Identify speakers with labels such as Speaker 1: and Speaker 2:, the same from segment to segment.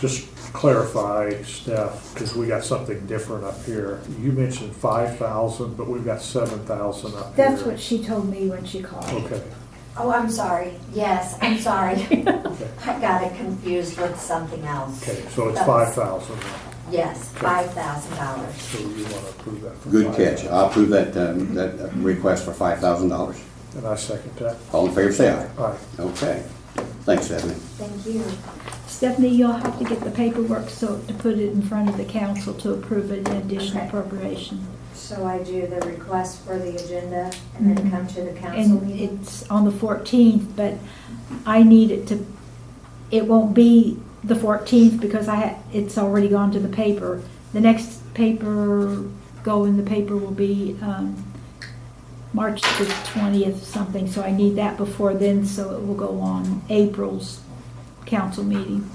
Speaker 1: just clarify, Steph, because we got something different up here. You mentioned five thousand, but we've got seven thousand up here.
Speaker 2: That's what she told me when she called.
Speaker 1: Okay,
Speaker 3: Oh, I'm sorry. Yes, I'm sorry.
Speaker 1: okay,
Speaker 3: I got it confused with something else.
Speaker 1: okay, so it's
Speaker 3: That
Speaker 1: five
Speaker 3: was-
Speaker 1: thousand,
Speaker 3: Yes, five thousand dollars.
Speaker 1: so you want to approve that for
Speaker 4: Good
Speaker 1: five
Speaker 4: catch.
Speaker 1: thousand.
Speaker 4: I'll approve that, um, that uh, request for five thousand dollars.
Speaker 1: And I second that.
Speaker 4: All in favor, say aye.
Speaker 1: All right,
Speaker 4: Okay. Thanks, Stephanie.
Speaker 3: Thank you.
Speaker 2: Stephanie, you'll have to get the paperwork so, to put it in front of the council to approve an additional
Speaker 3: Okay.
Speaker 2: appropriation.
Speaker 3: So I do the request for the agenda and then come to the council
Speaker 2: And
Speaker 3: meeting?
Speaker 2: it's on the fourteenth, but I need it to, it won't be the fourteenth because I, ha- it's already gone to the paper. The next paper, go in the paper will be, um, March the twentieth something, so I need that before then, so it will go on April's council meeting.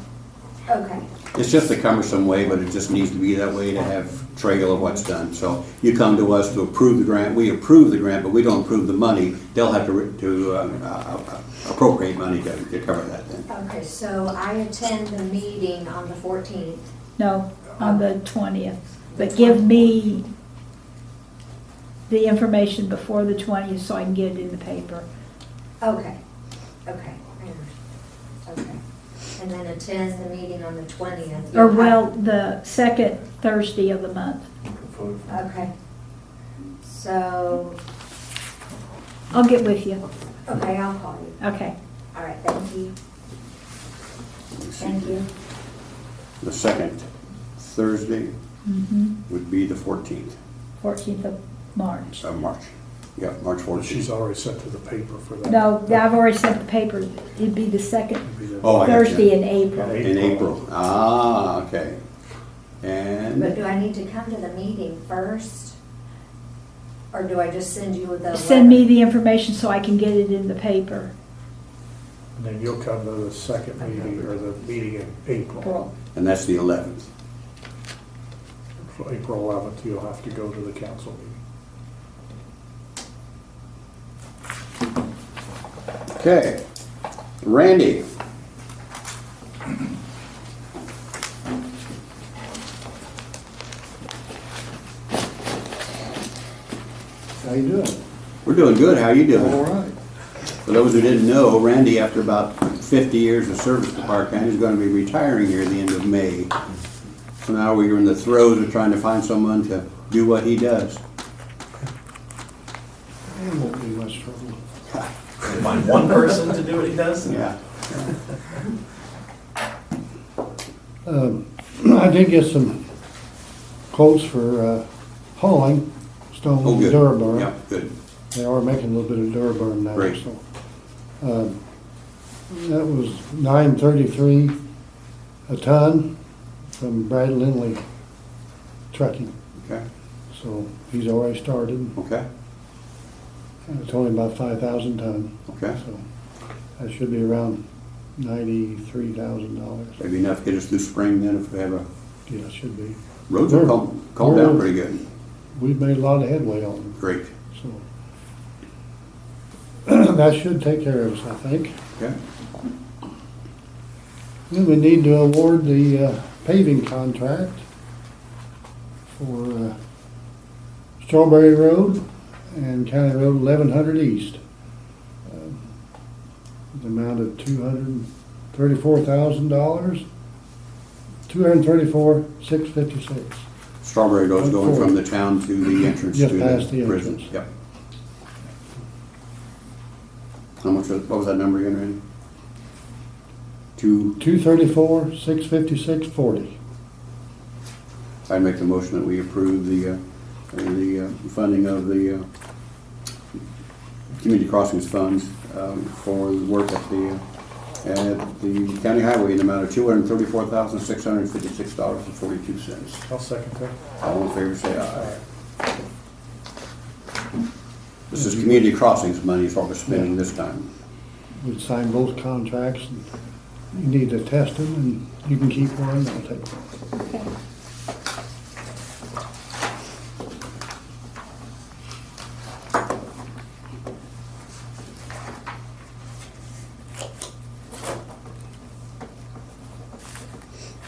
Speaker 3: Okay,
Speaker 4: It's just a cumbersome way, but it just needs to be that way to have trail of what's done. So you come to us to approve the grant, we approve the grant, but we don't approve the money. They'll have to, re- to um, uh, uh, appropriate money to, to cover that then.
Speaker 3: okay, so I attend the meeting on the fourteenth.
Speaker 2: No, on the twentieth, but give me the information before the twentieth so I can get it in the paper.
Speaker 3: Okay, okay, I understand. okay. And then attends the meeting on the twentieth.
Speaker 2: Or well, the second Thursday of the month.
Speaker 3: Okay. So,
Speaker 2: I'll get with you.
Speaker 3: okay, I'll call you.
Speaker 2: Okay.
Speaker 3: All right, thank you. Thank you.
Speaker 4: The second Thursday would be the fourteenth
Speaker 2: Mm-hmm. Fourteenth of March.
Speaker 4: of March. Yeah, March
Speaker 1: well, she's
Speaker 4: fourteenth.
Speaker 1: already sent to the paper for that.
Speaker 2: No, I've already sent the paper. It'd be the second
Speaker 4: Oh, I got you.
Speaker 2: Thursday in April.
Speaker 4: In April. Ah, okay. And.
Speaker 3: But do I need to come to the meeting first? Or do I just send you the?
Speaker 2: Send me
Speaker 3: letter?
Speaker 2: the information so I can get it in the paper.
Speaker 1: And then you'll come to the second meeting, or the meeting in April.
Speaker 2: April.
Speaker 4: And that's the 11th.
Speaker 1: So April eleventh, you'll have to go to the council meeting.
Speaker 4: Okay. Randy,
Speaker 5: How you doing?
Speaker 4: we're doing good. How you
Speaker 5: All
Speaker 4: doing?
Speaker 5: right.
Speaker 4: For those who didn't know, Randy, after about 50 years of service to Park County, is going to be retiring here at the end of May. So now we're in the throes of trying to find someone to do what he does.
Speaker 5: It won't be much trouble.
Speaker 6: Find one person to do what he does?
Speaker 4: Yeah.
Speaker 5: Um, I did get some quotes for uh, hauling stone
Speaker 4: Oh,
Speaker 5: and
Speaker 4: good.
Speaker 5: Duraburn.
Speaker 4: Yeah, good.
Speaker 5: They are making a little bit of Duraburn now,
Speaker 4: Great.
Speaker 5: so. um, That was nine thirty-three a ton from Brad Lindley Trucking.
Speaker 4: Okay,
Speaker 5: So he's already started.
Speaker 4: okay,
Speaker 5: It's only about five thousand ton.
Speaker 4: okay.
Speaker 5: So that should be around ninety-three thousand dollars.
Speaker 4: Maybe enough to get us through spring then if we have a,
Speaker 5: Yeah, it should be.
Speaker 4: roads are calm- calmed down pretty good.
Speaker 5: We've made a lot of headway on them,
Speaker 4: Great.
Speaker 5: so. That should take care of us, I think.
Speaker 4: Okay,
Speaker 5: Then we need to award the uh, paving contract for uh, Strawberry Road and County Road eleven hundred east. Um, The amount of two hundred and thirty-four thousand dollars, two hundred and thirty-four, six fifty-six.
Speaker 4: Strawberry Road's going from the town to the entrance to
Speaker 5: Just past the
Speaker 4: the prison.
Speaker 5: entrance.
Speaker 4: Yep. How much, was- what was that number again, Randy? Two,
Speaker 5: Two thirty-four, six fifty-six, forty.
Speaker 4: I'd make the motion that we approve the, uh, the uh, funding of the uh, community crossings funds um, for the work at the, uh, at the county highway in the amount of two hundred and thirty-four thousand, six hundred and fifty-six dollars and forty-two cents.
Speaker 1: I'll second that.
Speaker 4: All in favor, say aye. This is community crossings money is what we're spending this time.
Speaker 5: We signed both contracts, and you need to test them, and you can keep one, I'll take one.
Speaker 2: Okay.